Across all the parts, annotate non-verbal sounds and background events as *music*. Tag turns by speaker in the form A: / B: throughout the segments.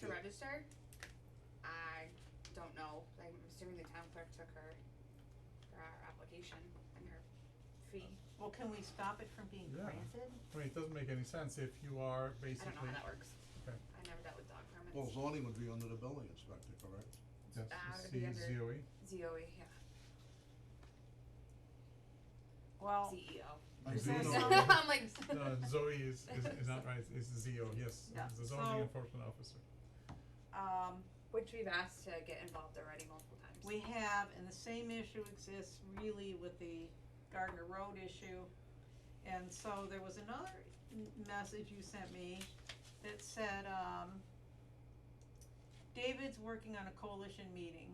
A: to register. I don't know, like, I'm assuming the town clerk took her, her application and her fee.
B: Well, can we stop it from being
C: Yeah.
B: granted?
C: I mean, it doesn't make any sense if you are
A: I
C: basically.
A: don't know how that works.
C: Okay.
A: I never dealt with dog permits.
D: Well, zoning would be under the building inspector, correct?
C: Yes,
A: Ah, it would
C: C
A: be
C: is
A: under- *laughs*
C: ZOE.
A: ZOE, yeah,
B: Well,
A: CEO.
D: I
B: Is
D: do
B: there
D: know Uh,
B: some-
A: *laughs*
D: that-
A: I'm like.
C: No, Zoe is, is, is not right, it's ZO, yes,
B: Yeah,
C: the zoning
B: so-
C: enforcement officer.
A: *laughs*
B: um,
A: Which we've asked to get involved already multiple times.
B: we have, and the same issue exists really with the Gardner Road issue. And so there was another m- message you sent me that said, um, David's working on a coalition meeting.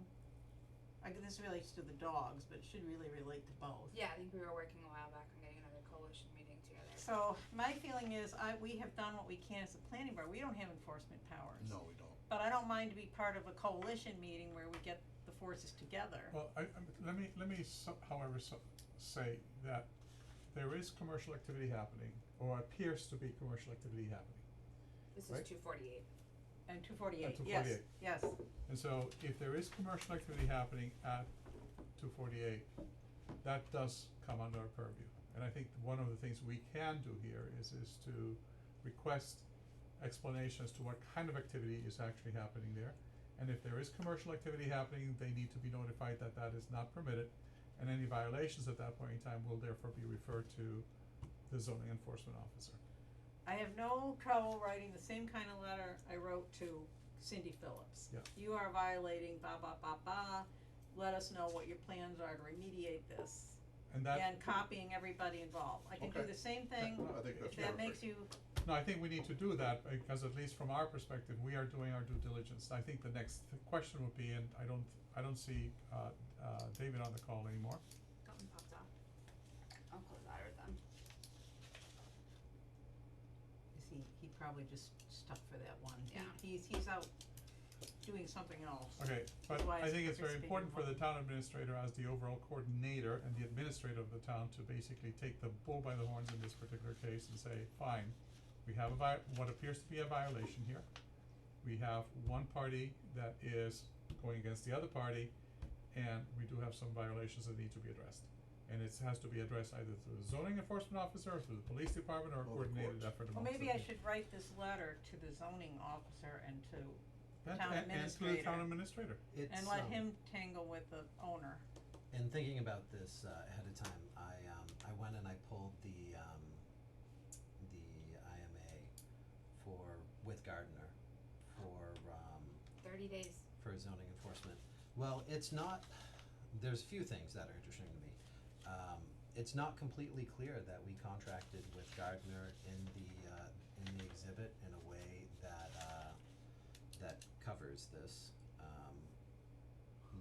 B: I, g- this relates to the dogs, but it should really relate to both.
A: Yeah, I think we were working a while back on getting another coalition meeting together.
B: So my feeling is I, we have done what we can as a planning board. We don't have enforcement powers.
D: No, we don't.
B: But I don't mind to be part of a coalition meeting where we get the forces together.
C: Well, I, i let me, let me so, however, so, say that there is commercial activity happening, or appears to be commercial activity happening.
A: This
C: Right.
A: is two forty-eight.
B: And two forty-eight,
C: And
B: yes,
C: 248.
B: yes.
C: And so if there is commercial activity happening at two forty-eight, that does come under our purview. And I think one of the things we can do here is, is to request explanation as to what kind of activity is actually happening there. And if there is commercial activity happening, they need to be notified that that is not permitted. And any violations at that point in time will therefore be referred to the zoning enforcement officer.
B: I have no trouble writing the same kind of letter I wrote to Cindy Phillips.
C: Yeah.
B: You are violating ba ba ba ba, let us know what your plans are to remediate this,
C: And that,
B: and copying everybody involved. I can do
D: Okay.
B: the same thing,
D: I think that's
B: if that makes
D: perfect.
B: you,
C: no, I think we need to do that because at least from our perspective, we are doing our due diligence. I think the next question would be, and I don't, I don't see, uh, uh, David on the call anymore.
A: Something popped off. I'll close that with them.
B: is he, he probably just stuck for that one. He-
A: Yeah.
B: He's, he's out doing something else.
C: Okay, but
B: Why
C: I
B: is
C: think it's very
B: participating
C: important for
B: more?
C: the town administrator as the overall coordinator and the administrator of the town to basically take the bull by the horns in this particular case and say, fine, we have a vi- what appears to be a violation here. We have one party that is going against the other party, and we do have some violations that need to be addressed. And it has to be addressed either through the zoning enforcement officer, or through the police department, or a
D: Or the
C: coordinated
D: courts.
C: effort amongst the
B: Well, maybe I should write this letter to the zoning officer and to,
C: And-
B: town
C: and- and through the town
B: administrator.
C: administrator.
E: It's,
B: and let
E: um,
B: him tangle with the owner.
E: And thinking about this uh, ahead of time, I um, I went and I pulled the um, the IMA for with Gardner for um,
A: Thirty days.
E: for zoning enforcement. Well, it's not. There's a few things that are interesting to me. Um, it's not completely clear that we contracted with Gardner in the uh, in the exhibit in a way that uh, that covers this. Um,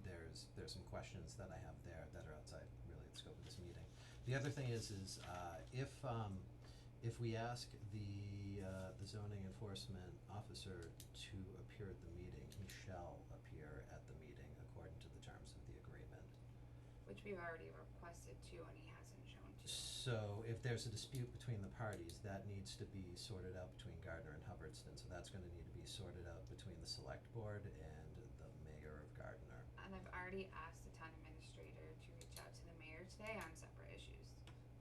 E: there's there's some questions that I have there that are outside really the scope of this meeting. The other thing is is uh, if um, if we ask the uh, the zoning enforcement officer to appear at the meeting, he shall appear at the meeting according to the terms of the agreement.
A: Which we've already requested to and he hasn't shown to.
E: So if there's a dispute between the parties, that needs to be sorted out between Gardner and Hubbardston, so that's gonna need to be sorted out between the select board and the mayor of Gardner.
A: And I've already asked the town administrator to reach out to the mayor today on separate issues.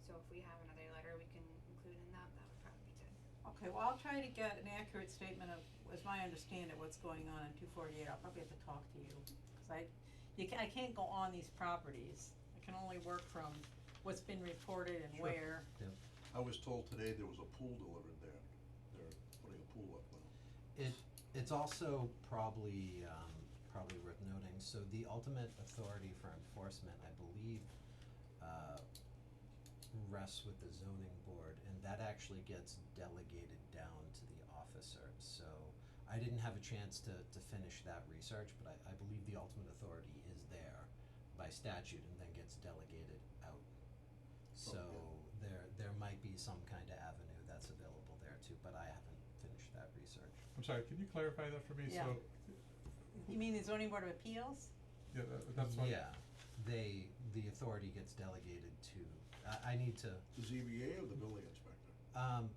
A: So if we have another letter we can include in that, that would probably be good.
B: Okay, well, I'll try to get an accurate statement of, as my understanding, of what's going on in two forty-eight, I'll probably have to talk to you, cause I, you ca- I can't go on these properties. I can only work from what's been reported and
D: Sure.
B: where,
D: I was told today there was a pool delivered there. They're putting a pool up now.
E: It, it's also probably, um, probably worth noting, so the ultimate authority for enforcement, I believe, uh, rests with the zoning board, and that actually gets delegated down to the officer, so I didn't have a chance to, to finish that research, but I, I believe the ultimate authority is there by statute and then gets delegated out. So there, there might be some kind of avenue that's available there too, but I haven't finished that research.
C: I'm sorry, can you clarify that for me?
B: Yeah.
C: So,
B: you mean the zoning board of appeals?
C: yeah, that, that's what.
E: Yeah, they, the authority gets delegated to, I, I need to,
D: The ZBA or the building inspector?
E: um,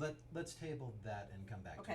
E: let, let's table that and come back to
B: Okay.